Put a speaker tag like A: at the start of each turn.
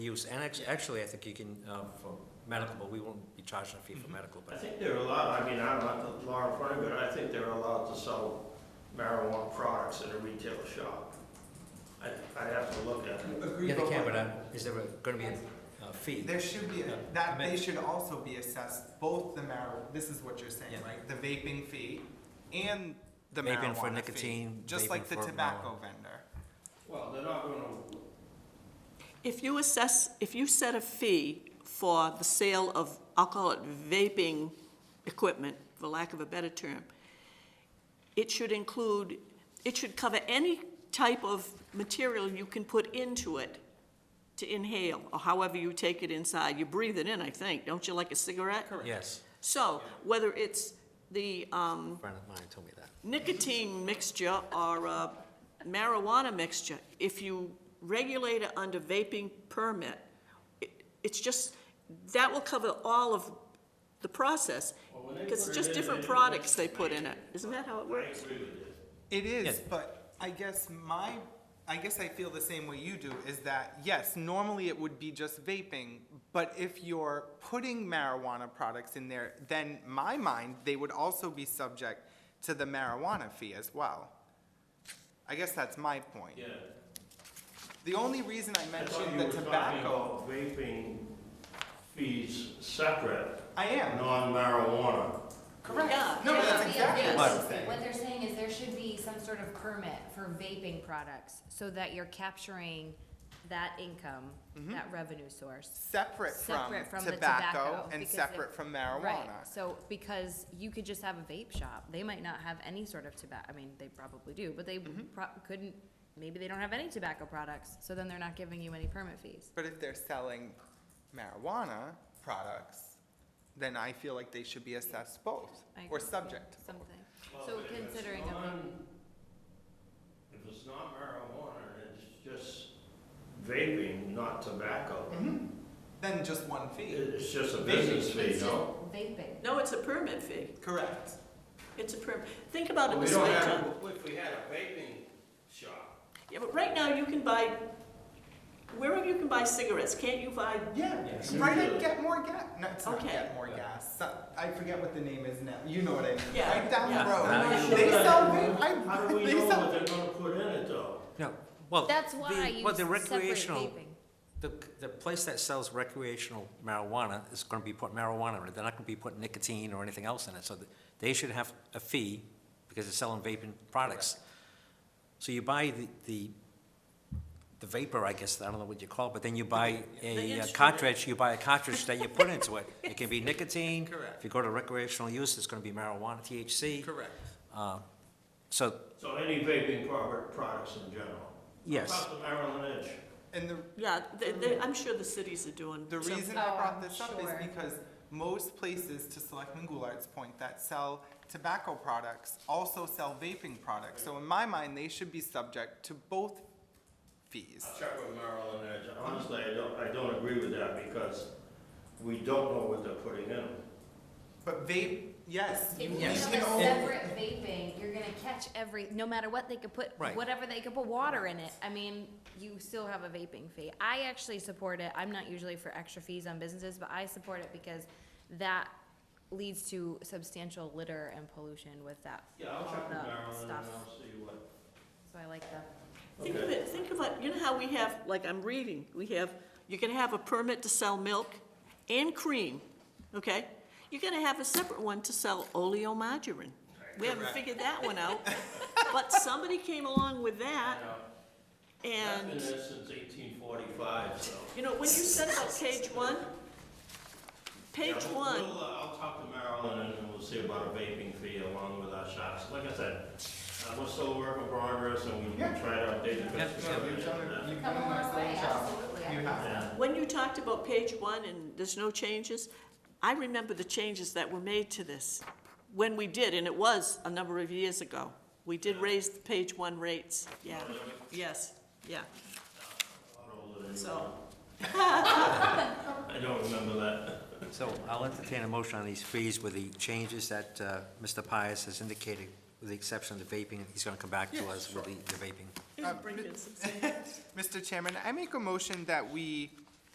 A: use, and act- actually, I think you can, um, for medical, but we won't be charging a fee for medical,
B: I
A: but,
B: think they're allowed, I mean, I'm not the law enforcement, but I think they're allowed to sell marijuana products in a retail shop. I, I'd have to look at it.
C: Agreed.
A: yeah, they
C: but
A: can,
C: what-
A: but uh, is there going to be a uh, fee?
C: There should be,
A: Yeah.
C: a- that,
A: I
C: they
A: mean-
C: should also be assessed, both the mar, this is what you're saying,
A: Yeah.
C: right? The vaping fee and the
A: Vaping for
C: marijuana fee,
A: nicotine,
C: just like
A: vaping
C: the
A: for
C: tobacco vendor.
B: Well, they're not gonna,
D: If you assess, if you set a fee for the sale of, I'll call it vaping equipment, for lack of a better term, it should include, it should cover any type of material you can put into it to inhale, or however you take it inside. You breathe it in, I think, don't you, like a cigarette?
A: Yes,
D: So, whether it's the, um,
A: a friend of mine told me that.
D: nicotine mixture or uh, marijuana mixture, if you regulate it under vaping permit, it- it's just, that will cover all of the process,
B: Well, when they
D: because
B: put
D: it's
B: it
D: just
B: in,
D: different
B: they-
D: products they put in it. Isn't that how it
B: I agree
D: works?
B: with you.
C: It is,
A: Yeah.
C: but I guess my, I guess I feel the same way you do, is that, yes, normally it would be just vaping, but if you're putting marijuana products in there, then my mind, they would also be subject to the marijuana fee as well. I guess that's my point.
B: Yeah.
C: The only reason I
B: I thought you
C: mentioned
B: were
C: the
B: talking
C: tobacco,
B: about Vaping fees separate,
C: I am,
B: non-marijuana.
C: correct.
D: Yeah.
C: No, but that's
E: Yeah,
C: exactly
E: yeah.
C: what I'm saying.
E: What they're saying is there should be some sort of permit for vaping products so that you're capturing that income, that revenue source.
C: Mm-hmm. Separate from
E: Separate from the
C: tobacco
E: tobacco,
C: and
E: because
C: separate
E: if-
C: from
E: Right,
C: marijuana.
E: so because you could just have a vape shop, they might not have any sort of tobacco, I mean, they probably do, but they
C: Mm-hmm.
E: pro- couldn't, maybe they don't have any tobacco products, so then they're not giving you any permit fees.
C: But if they're selling marijuana products, then I feel like they should be assessed both,
E: I
C: or
E: agree.
C: subject to both.
E: Something,
B: Well,
E: so
B: but if it's
E: considering a
B: non-
E: vape.
B: If it's not marijuana, and it's just Mm-hmm. vaping, not tobacco,
C: Then just one fee.
B: it's just a
C: Vaping.
B: business fee,
E: It's just
B: no?
E: vaping.
D: No, it's a permit fee.
C: Correct.
D: It's a permit. Think about it
B: We
D: this
B: don't
D: way,
B: have,
D: John.
B: if we had a vaping shop,
D: Yeah, but right now, you can buy, wherever you can buy cigarettes, can't you buy?
C: Yeah,
B: Yes.
C: right at Get More Gas, no, it's not
D: Okay.
C: Get More Gas, So- I forget what the name is now, you know what I mean.
D: Yeah,
C: Right down
D: yeah.
C: the road,
B: Yeah.
C: they
B: Yeah.
C: sell, vape-
B: how do
C: I,
B: we
C: they
B: know what
C: sell,
B: they're gonna put in it though?
A: No, well.
E: That's
A: the-
E: why I
A: Well,
E: use
A: the
E: separate
A: recreational,
E: vaping.
A: the, the place that sells recreational marijuana is going to be putting marijuana in it. They're not going to be putting nicotine or anything else in it, so that- they should have a fee because they're selling vaping products. So you buy the, the the vapor, I guess, I don't know what you call it, but then you buy a uh,
D: instrument.
A: cartridge, you buy a cartridge that you put into it. It can be nicotine.
C: Correct.
A: If you go to recreational use, it's going to be marijuana, THC.
C: correct.
A: Uh, So,
B: So any vaping pro- products in general?
A: yes,
B: How about the Maryland Edge?
C: And the
D: Yeah, they- they- I'm sure the cities are doing
C: The
D: something.
C: reason I
E: Oh,
C: brought
E: I'm
C: this up is
E: sure.
C: because most places, to Selectman Goulart's point, that sell tobacco products also sell vaping products. So in my mind, they should be subject to both fees.
B: I'll check with Maryland Edge. Honestly, I don't, I don't agree with that because we don't know what they're putting in them.
C: But vape, yes.
E: If
C: you-
E: you
C: you
E: have a
C: can only-
E: separate vaping, you're gonna catch every, no matter what they could put,
A: Right.
E: whatever they could put water in it, I mean, you still have a vaping fee. I actually support it, I'm not usually for extra fees on businesses, but I support it because that leads to substantial litter and pollution with that,
B: Yeah,
E: all
B: I'll check with
E: the
B: Maryland and
E: stuff.
B: I'll see what.
E: So I like that.
D: Think of
B: Okay.
D: it, think about, you know how we have, like I'm reading, we have, you're gonna have a permit to sell milk and cream, okay? You're gonna have a separate one to sell oleomargarine. We haven't
C: Correct.
D: figured that one out, but somebody came along with that,
B: I've been there
D: and,
B: since eighteen forty-five, so.
D: you know, when you said about page one, page
B: Yeah, we'll-
D: one,
B: we'll, uh, I'll talk to Marilyn and we'll see about a vaping fee along with our shops. Like I said, uh, we're still a work in progress and we will
C: Yeah.
B: try to update the.
A: Yep,
B: business
C: You've
B: plan.
C: done a- you've
E: Come
C: done
E: a
C: an
E: long way,
C: excellent job.
E: absolutely.
C: You
B: Yeah.
C: have.
D: when you talked about page one and there's no changes, I remember the changes that were made to this when we did, and it was a number of years ago. We did raise the page one rates, yeah, yes, yeah, so,
B: I don't remember that.
A: so I'll entertain a motion on these fees with the changes that uh, Mr. Pius has indicated, with the exception of the vaping, he's gonna come back to us with the the vaping.
D: bring it,
C: Mr. Chairman, I make a motion that we